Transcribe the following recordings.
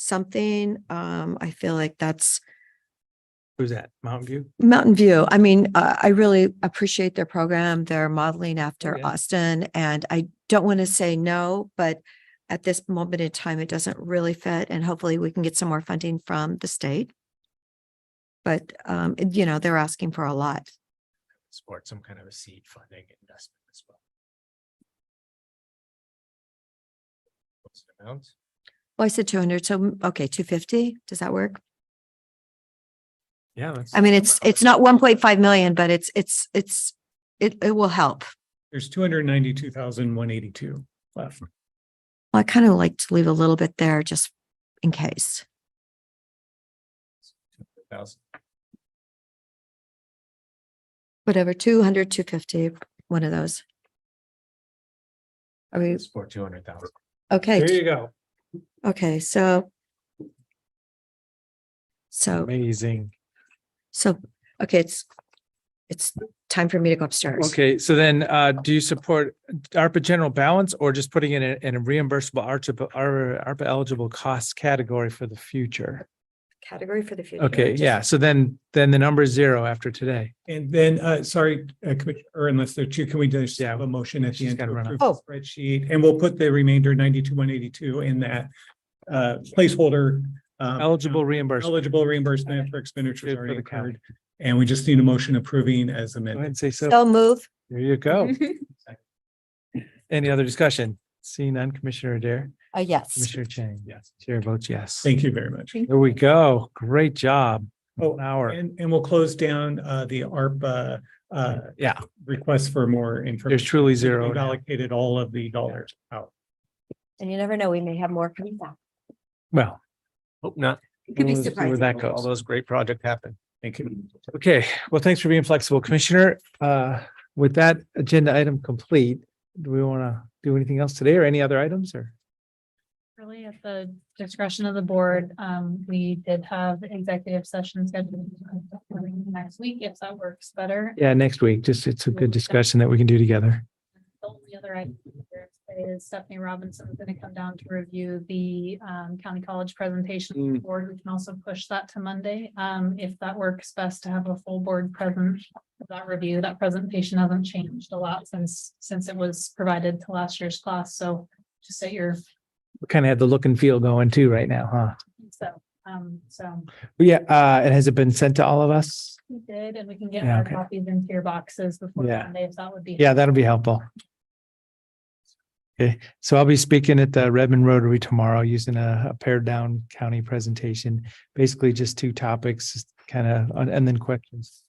something. Um, I feel like that's Who's that? Mountain View? Mountain View. I mean, uh, I really appreciate their program. They're modeling after yeah. Austin and I don't want to say no, but at this moment in time, it doesn't really fit and hopefully we can get some more funding from the state. But, um, it- you know, they're asking for a lot. Support some kind of a seed funding investment as well. What's the amount? Well, I said two hundred, so, mm, okay, two fifty, does that work? Yeah. I mean, it's, it's not one point five million, but it's, it's, it's, it, it will help. There's two hundred ninety-two thousand, one eighty-two left. I kind of like to leave a little bit there just in case. Thousand. Whatever, 200, 250, one of those. Are we, Support two hundred thousand. There okay, you go. okay, so. So, Amazing. so, okay, it's, it's time for me to go upstairs. Okay, so then, uh, do you support ARPA general balance or just putting in a, in a reimbursable ARPA, ARPA eligible cost category for the future? Category for the future. Okay, just- yeah, so then, then the number is zero after today. And then, uh, sorry, uh, Commissioner, or unless there are two, can we just Yeah, have a motion at the she's end? gotta to run approve out. the Spreadsheet, and we'll put the remainder ninety-two, one eighty-two in that, uh, placeholder. um, Eligible reimbursement. Eligible reimbursement for expenditures Good for already the county. incurred. And we just need a motion approving as Go ahead amended. and say so. Oh. Mm-hmm. So move. There you go. Any other discussion? Seeing none, Commissioner Adair, Uh, yes. Commissioner Chang. Yes. Chair votes yes. Thank you very much. There we go. Great job. Oh, An hour. and, and we'll close down, uh, the ARPA, uh, Yeah, request for more information. there's truly zero. We've now. Allocated all of the dollars Oh, out. And you never know, we may have more coming back. Well. Hope not. It could be we'll see Where surprising. that All goes. those great projects happen. Thank you. Okay, well, thanks for being flexible, Commissioner. Uh, with that agenda item complete, do we want to do anything else today or any other items or? Really at the discretion of the board, um, we did have executive session scheduled for next week, if that works better. Yeah, next week, just it's a good discussion that we can do together. The only other item here is Stephanie Robinson is gonna come down to review the, um, county college presentation to the board. We can also push that to Monday, um, if that works best to have a full board present. for That review, that presentation hasn't changed a lot since, since it was provided to last year's class, so just at your, We kind of have the look and feel going too right now, huh? so, um, so. But Yeah, uh, and has it been sent to all of us? We did, and we can get Yeah, our okay. copies into your boxes before Yeah. Monday, if that would be. Yeah, that'll be helpful. Okay, so I'll be speaking at the Redmond Rotary tomorrow using a a pared down county presentation. Basically just two topics, kind of, and then questions.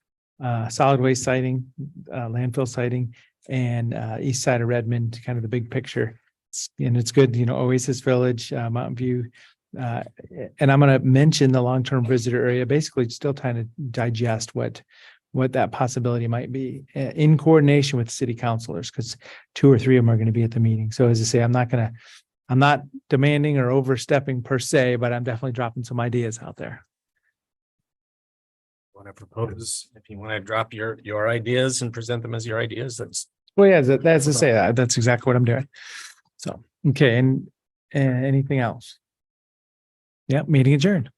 Uh, solid waste siting, uh, landfill siting and, uh, east side of Redmond, kind of the big picture. It's- And it's good, you know, Oasis Village, uh, Mountain View. Uh, and I'm going to mention the long-term visitor area, basically still trying to digest what what that possibility might be uh, in coordination with city councilors, because two or three of them are going to be at the meeting. So as I say, I'm not going to, I'm not demanding or overstepping per se, but I'm definitely dropping some ideas out there. Want to propose, if you want to drop your, your ideas and present them as your ideas, that's. Well, yeah, that- that's to say, that- that's exactly what I'm doing. So, okay, and, and anything else? eh, Yeah, meeting adjourned.